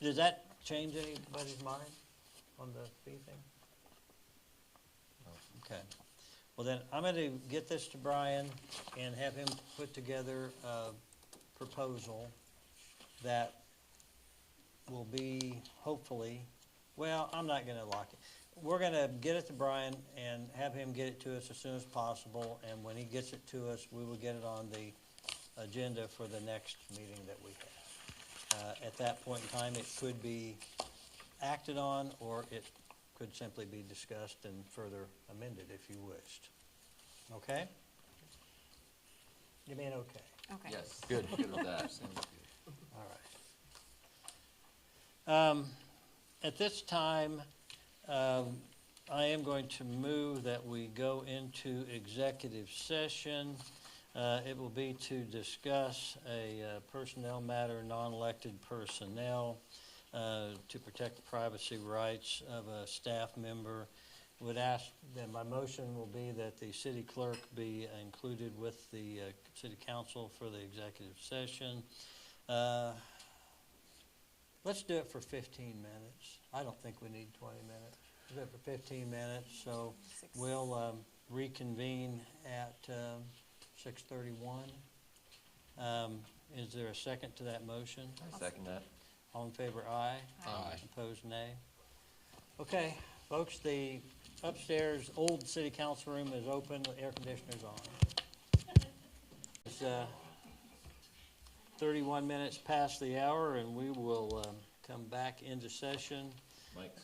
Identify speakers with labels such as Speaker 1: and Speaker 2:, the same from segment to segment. Speaker 1: Does that change anybody's mind on the fee thing? Okay. Well, then, I'm gonna get this to Brian and have him put together a proposal that will be hopefully, well, I'm not gonna lock it. We're gonna get it to Brian and have him get it to us as soon as possible, and when he gets it to us, we will get it on the agenda for the next meeting that we have. Uh, At that point in time, it could be acted on, or it could simply be discussed and further amended if you wished. Okay? You mean okay?
Speaker 2: Okay.
Speaker 3: Yes, good, good with that.
Speaker 1: All right. Um, At this time, um, I am going to move that we go into executive session. Uh, It will be to discuss a uh, personnel matter, non-elected personnel, uh, to protect the privacy rights of a staff member. Would ask, then my motion will be that the city clerk be included with the uh, city council for the executive session. Uh, Let's do it for 15 minutes. I don't think we need 20 minutes. We'll do it for 15 minutes, so
Speaker 2: Six.
Speaker 1: we'll um, reconvene at um, 6:31. Um, Is there a second to that motion?
Speaker 3: I second that.
Speaker 1: All in favor, aye.
Speaker 3: Aye.
Speaker 1: Opposed, nay. Okay, folks, the upstairs old city council room is open, the air conditioner's on. It's uh, 31 minutes past the hour, and we will um, come back into session.
Speaker 3: Mike's,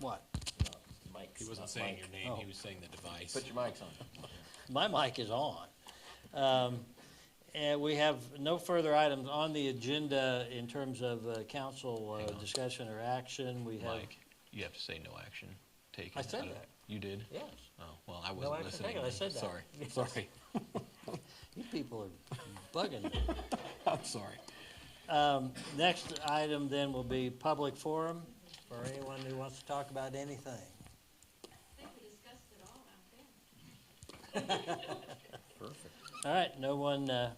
Speaker 1: What?
Speaker 3: not Mike's.
Speaker 4: He wasn't
Speaker 3: not
Speaker 4: saying
Speaker 3: Mike.
Speaker 4: your name,
Speaker 1: Oh.
Speaker 4: he was saying the device.
Speaker 3: Put your mics on.
Speaker 1: My mic is on. Um, And we have no further items on the agenda in terms of uh, council uh,
Speaker 5: Hang on.
Speaker 1: discussion or action. We have,
Speaker 5: Mike, you have to say no action taken.
Speaker 1: I said
Speaker 5: don't-
Speaker 1: that.
Speaker 5: You did?
Speaker 1: yes,
Speaker 5: Oh, well, I
Speaker 1: no
Speaker 5: wasn't
Speaker 1: action
Speaker 5: listening.
Speaker 1: taken, I said that.
Speaker 5: Sorry, sorry,
Speaker 1: You people are bugging me.
Speaker 5: I'm sorry.
Speaker 1: Um, Next item then will be public forum for anyone who wants to talk about anything.
Speaker 6: think we discussed it all out there.
Speaker 3: Perfect.
Speaker 1: All right, no one uh,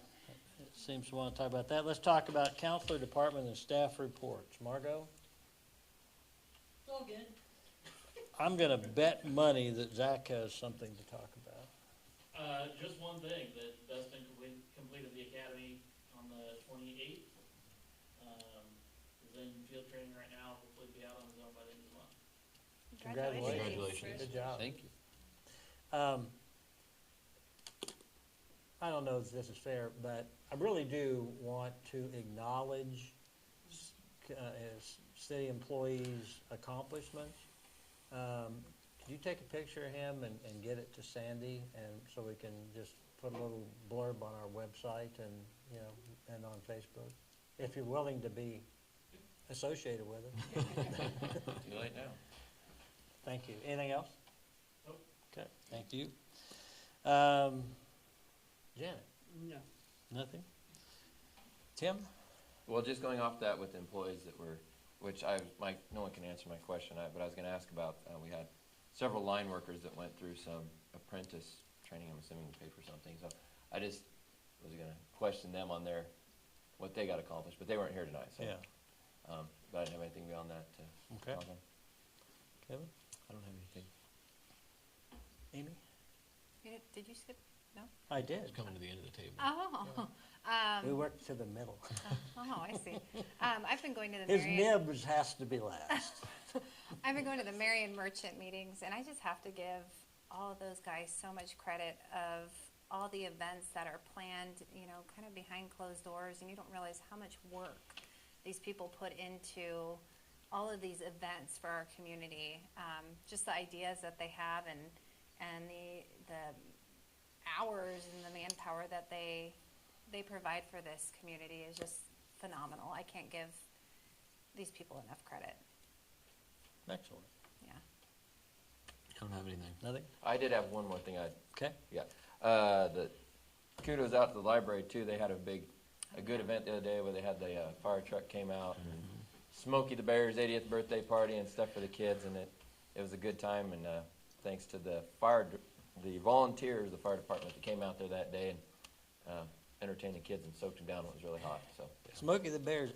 Speaker 1: seems to want to talk about that. Let's talk about counselor department and staff reports. Margot?
Speaker 6: It's all good.
Speaker 1: I'm going to bet money that Zach has something to talk about.
Speaker 7: Uh, just one thing, that Dustin complete- completed the academy on the twenty-eighth. Um, is in field training right now, hopefully be out on his own by the end of the month.
Speaker 1: Good
Speaker 5: Congratulations.
Speaker 1: job.
Speaker 3: Thank you.
Speaker 1: Um, I don't know if this is fair, but I really do want to acknowledge s- c- uh, as city employees' accomplishments. Um, Could you take a picture of him and, and get it to Sandy, and so we can just put a little blurb on our website and, you know, and on Facebook? If you're willing to be associated with it.
Speaker 3: Too late now.
Speaker 1: Thank you. Anything else?
Speaker 7: Nope.
Speaker 1: Okay, thank you. Um, Janet,
Speaker 7: No.
Speaker 1: nothing? Tim?
Speaker 3: Well, just going off that with employees that were, which I, Mike, no one can answer my question, I- but I was gonna ask about, uh, we had several line workers that went through some apprentice training, I'm assuming to pay for something, so I just was gonna question them on their, what they got accomplished, but they weren't here tonight, so. Um, but I didn't have anything beyond that to
Speaker 1: Okay.
Speaker 3: tell them.
Speaker 1: Kevin?
Speaker 3: I don't have anything.
Speaker 1: Amy?
Speaker 2: You did- Did you skip?
Speaker 1: I did.
Speaker 4: Coming to the end of the table.
Speaker 2: Oh,
Speaker 1: We
Speaker 2: um,
Speaker 1: worked to the middle.
Speaker 2: oh, I see. Um, I've been going to the
Speaker 1: His
Speaker 2: Marion,
Speaker 1: nibs has to be last.
Speaker 2: I've been going to the Marion Merchant meetings and I just have to give all of those guys so much credit of all the events that are planned, you know, kind of behind closed doors and you don't realize how much work these people put into all of these events for our community. Um, just the ideas that they have and, and the, the hours and the manpower that they they provide for this community is just phenomenal. I can't give these people enough credit.
Speaker 1: Excellent.
Speaker 2: Yeah.
Speaker 5: I don't have anything.
Speaker 1: Nothing?
Speaker 3: I did have one more thing I,
Speaker 1: Okay.
Speaker 3: yeah, uh, the kudos out to the library too, they had a big, a good event the other day where they had the, uh, fire truck came out and Smokey the Bear's eightieth birthday party and stuff for the kids and it, it was a good time and, uh, thanks to the fire, d- the volunteers, of the fire department that came out there that day and, uh, entertained the kids and soaked them down, it was really hot, so.
Speaker 1: Smokey the Bear's